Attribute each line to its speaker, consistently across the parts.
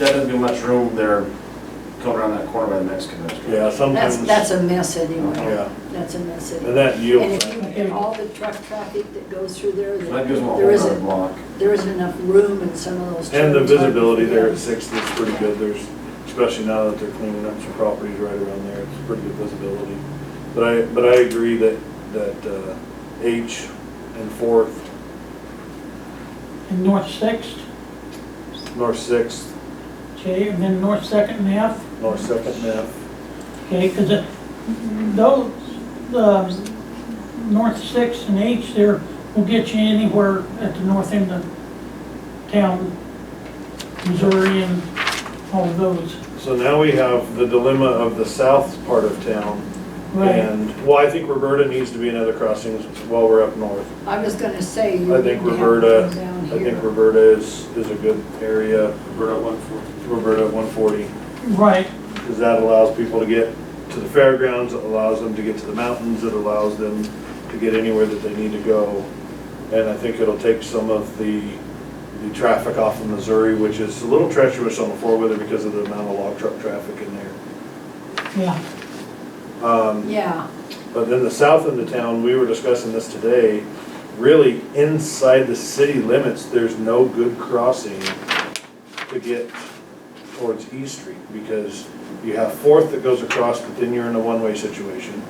Speaker 1: That doesn't give much room there, coming around that corner by the Mexican restaurant.
Speaker 2: Yeah,
Speaker 3: That's,
Speaker 2: sometimes.
Speaker 3: that's a mess anyway.
Speaker 2: Yeah,
Speaker 3: That's a mess
Speaker 2: and
Speaker 3: anyway.
Speaker 2: that
Speaker 3: And
Speaker 2: yield.
Speaker 3: if you, and all the truck traffic that goes through there,
Speaker 1: So That gives them a whole
Speaker 3: there
Speaker 1: other
Speaker 3: isn't,
Speaker 1: block.
Speaker 3: there isn't enough room in some of those.
Speaker 2: And the
Speaker 3: turns, hardly
Speaker 2: visibility
Speaker 3: for
Speaker 2: there
Speaker 3: them.
Speaker 2: at Sixth is pretty good, there's, especially now that they're cleaning up some properties right around there, it's pretty good visibility. But I, but I agree that, that uh, H and Fourth,
Speaker 4: and North Sixth,
Speaker 2: North Sixth,
Speaker 4: okay, and then North Second and F,
Speaker 2: North Second and F,
Speaker 4: okay, because those, the North Sixth and H there will get you anywhere at the north end of town, Missouri and all of those.
Speaker 2: So now we have the dilemma of the south part of town.
Speaker 4: Right.
Speaker 2: And, well, I think Roberta needs to be another crossing while we're up north.
Speaker 3: I was gonna say. you
Speaker 2: I think
Speaker 3: need to have
Speaker 2: Roberta,
Speaker 3: them down
Speaker 2: I think
Speaker 3: here.
Speaker 2: Roberta is, is a good area,
Speaker 1: We're at one forty.
Speaker 2: Roberta at 140,
Speaker 4: Right,
Speaker 2: because that allows people to get to the fairgrounds, it allows them to get to the mountains, it allows them to get anywhere that they need to go. And I think it'll take some of the, the traffic off of Missouri, which is a little treacherous on the four-wheeler because of the amount of log truck traffic in there.
Speaker 4: yeah,
Speaker 2: Um,
Speaker 3: Yeah,
Speaker 2: But then the south end of town, we were discussing this today, really inside the city limits, there's no good crossing to get towards East Street because you have Fourth that goes across, but then you're in a one-way situation.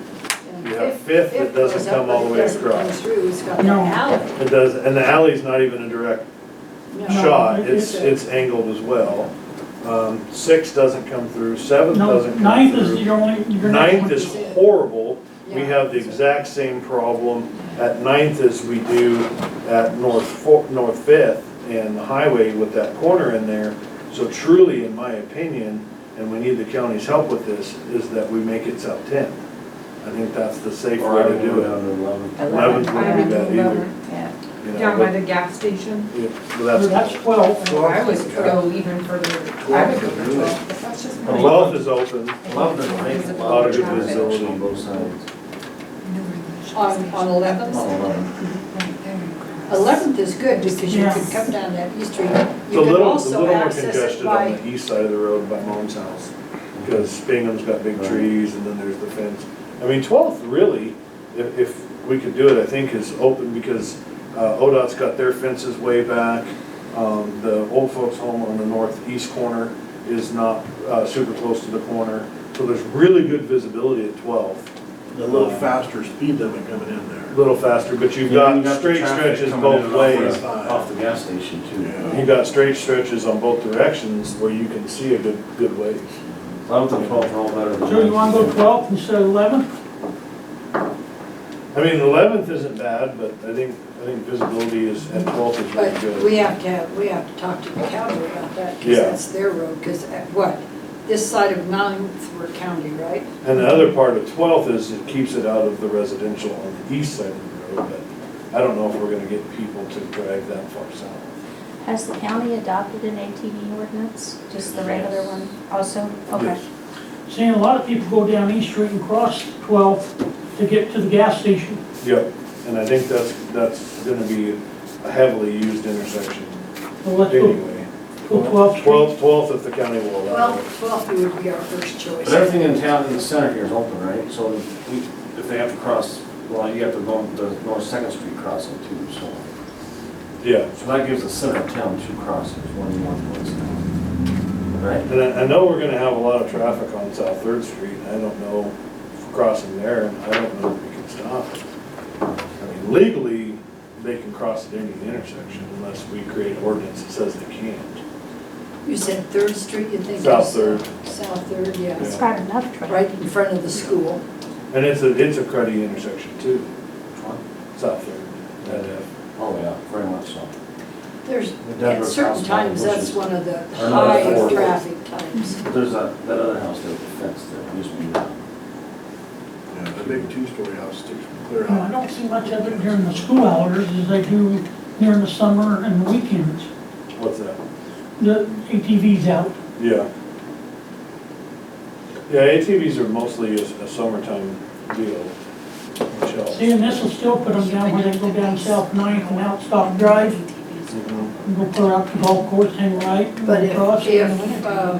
Speaker 3: and
Speaker 2: You have
Speaker 3: if-
Speaker 2: Fifth that
Speaker 3: if
Speaker 2: doesn't
Speaker 3: goes up,
Speaker 2: come all
Speaker 3: but
Speaker 2: the
Speaker 3: it
Speaker 2: way
Speaker 3: doesn't come
Speaker 2: across.
Speaker 3: Through, it's got that
Speaker 4: No.
Speaker 3: alley.
Speaker 2: It does, and the alley's not even a direct
Speaker 3: No.
Speaker 2: shot,
Speaker 4: it-
Speaker 2: it's, it's angled as well. Um, Six doesn't come through, Seventh
Speaker 4: no,
Speaker 2: doesn't come through.
Speaker 4: ninth is your only, your
Speaker 2: Ninth
Speaker 4: next
Speaker 2: is
Speaker 4: one.
Speaker 2: horrible. We
Speaker 3: Yeah.
Speaker 2: have the exact same problem at Ninth as we do at North Fo- North Fifth and the highway with that corner in there. So truly, in my opinion, and we need the county's help with this, is that we make it South Tenth. I think that's the safe
Speaker 1: Or
Speaker 2: way
Speaker 1: I
Speaker 2: to
Speaker 1: would do
Speaker 2: do
Speaker 1: it down
Speaker 2: it.
Speaker 1: to eleven.
Speaker 2: Eleventh wouldn't be
Speaker 5: Eleven.
Speaker 2: bad either.
Speaker 5: Yeah,
Speaker 2: you know,
Speaker 5: down by
Speaker 2: but-
Speaker 5: the gas station.
Speaker 2: yeah, but
Speaker 4: Or
Speaker 2: that's,
Speaker 4: That's twelve.
Speaker 5: Or I would go even further, I would go for twelve, but that's just my.
Speaker 2: Twelfth is open.
Speaker 1: Eleven is nice, a
Speaker 5: Visible
Speaker 1: lot of good
Speaker 5: traffic.
Speaker 1: visibility on both sides.
Speaker 3: On, on eleventh.
Speaker 1: On eleven.
Speaker 3: Eleventh is good because you can
Speaker 4: Yes.
Speaker 3: come down that East Street.
Speaker 2: It's a
Speaker 3: You can
Speaker 2: little, it's a
Speaker 3: also
Speaker 2: little more
Speaker 3: access it
Speaker 2: congested on
Speaker 3: by,
Speaker 2: the east side of the road by Moan's house, because Spingham's got big
Speaker 1: Right.
Speaker 2: trees, and then there's the fence. I mean, Twelfth really, if, if we could do it, I think is open, because, uh, ODOT's got their fences way back. Um, the old folks home on the northeast corner is not, uh, super close to the corner, so there's really good visibility at Twelfth.
Speaker 6: a little faster speed limit coming in there.
Speaker 2: A little faster, but you've
Speaker 1: Yeah, you
Speaker 2: got
Speaker 1: the
Speaker 2: straight
Speaker 1: traffic
Speaker 2: stretches
Speaker 1: coming in and
Speaker 2: both
Speaker 1: off the-
Speaker 2: ways.
Speaker 1: Off the gas station too.
Speaker 6: Yeah.
Speaker 2: You got straight stretches on both directions where you can see a good, good ways.
Speaker 1: Eleven and twelve are all better than.
Speaker 4: So you wanna go twelve instead of eleven?
Speaker 2: I mean, eleventh isn't bad, but I think, I think visibility is, at twelfth is really
Speaker 3: but we
Speaker 2: good.
Speaker 3: have to have, we have to talk to the county about that because
Speaker 2: Yeah.
Speaker 3: that's their road. Because what, this side of Ninth, we're county, right?
Speaker 2: And the other part of twelfth is it keeps it out of the residential on the east side of the road, but I don't know if we're gonna get people to drive that far south.
Speaker 7: Has the county adopted an ATV ordinance, just the regular one also? Okay.
Speaker 2: Yes.
Speaker 4: Seeing a lot of people go down East Street and cross 12 to get to the gas station.
Speaker 2: Yep, and I think that's, that's gonna be a heavily used intersection
Speaker 4: Well, let's go
Speaker 2: anyway.
Speaker 4: go 12 Street.
Speaker 2: Twelfth, twelfth if the county will allow it.
Speaker 3: Twelve, twelve would be our first choice.
Speaker 1: But everything in town in the center here is open, right? So we, if they have to cross, well, you have to go the North Second Street crossing too, so.
Speaker 2: Yeah.
Speaker 1: So that gives the center of town two crossings, one in one, one south. Right?
Speaker 2: And I, I know we're gonna have a lot of traffic on South Third Street, I don't know if we're crossing there, and I don't know if we can stop it. I mean, legally, they can cross at any intersection unless we create an ordinance that says they can't.
Speaker 3: You said Third Street, you think?
Speaker 2: South
Speaker 3: it's-
Speaker 2: Third,
Speaker 3: South Third,
Speaker 7: It's
Speaker 3: yes.
Speaker 7: got enough traffic.
Speaker 3: Right in front of the school.
Speaker 2: and it's a, it's a cruddy intersection too,
Speaker 1: Which one?
Speaker 2: South Third, that, uh,
Speaker 1: Oh, yeah, very much so.
Speaker 3: There's,
Speaker 1: Denver
Speaker 3: at certain
Speaker 1: Crossing Line,
Speaker 3: times,
Speaker 1: which
Speaker 3: that's
Speaker 1: is-
Speaker 3: one of the
Speaker 1: I know that's
Speaker 3: high
Speaker 1: four.
Speaker 3: traffic times.
Speaker 1: But there's that, that other house there, the fence there, used to be that.
Speaker 6: Yeah, the big two-story house sticks clear
Speaker 4: Now, Uh, I
Speaker 6: out.
Speaker 4: don't see much of it during the school hours as they do during the summer and the weekends.
Speaker 2: what's that?
Speaker 4: The ATV's out.
Speaker 2: Yeah. Yeah, ATVs are mostly a, a summertime deal, Michelle.
Speaker 4: See, and this will still put them down where they go down South Ninth and out Stock Drive.
Speaker 2: you know?
Speaker 4: Go put out the golf course and right.
Speaker 3: But if,
Speaker 4: across and-
Speaker 3: if, um,